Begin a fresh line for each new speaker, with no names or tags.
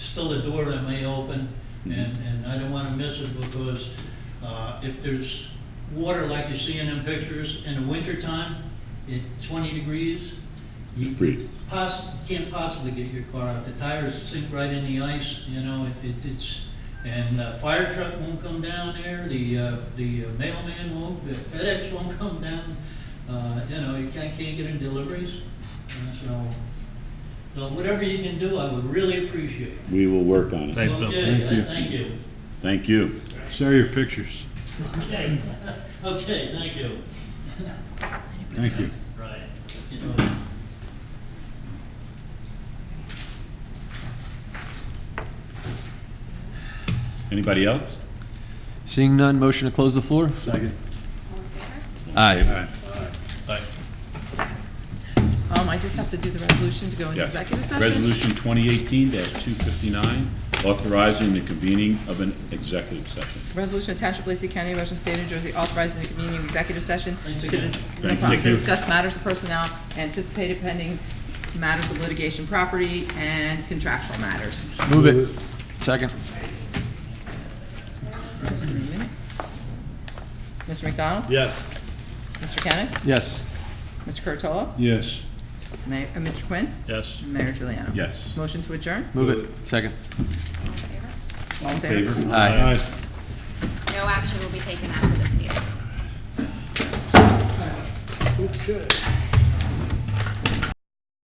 still a door that may open, and, and I don't want to miss it because uh, if there's water like you see in them pictures in the wintertime, at 20 degrees, you
Freeze.
poss, can't possibly get your car out. The tires sink right in the ice, you know, it, it- it's, and uh, fire truck won't come down there, the, uh, the mailman won't, the FedEx won't come down. Uh, You know, you can't, can't get in deliveries, Uh, so, so whatever you can do, I would really appreciate. it.
We will work on it.
Thanks, Bill.
Okay,
Thank you.
I thank you.
Thank you.
Share your pictures.
Okay, okay, thank you.
Thank you.
Right. You know,
Anybody else?
Seeing none, motion to close the floor?
Second.
Aye.
Um, I just have to do the resolution to go into
Yes.
executive session.
Resolution 2018-259, authorizing the convening of an executive session.
Resolution of Township of Lacey County, Ocean State, New Jersey, authorizing the convening of executive session
Thanks
to
again.
dis- no
Thank
problem,
you.
to discuss matters of personnel, anticipated pending matters of litigation, property, and contractual matters.
Move it. Second.
Just give me a minute. Mr. McDonald?
Yes.
Mr. Kennis?
Yes.
Mr. Curtola,
Yes.
Mayor, uh, Mr. Quinn?
Yes.
Mayor Juliana?
Yes.
Motion to adjourn?
Move it. Second.
All in favor?
Favor?
Aye.
Aye.
No action will be taken after this meeting.
Okay.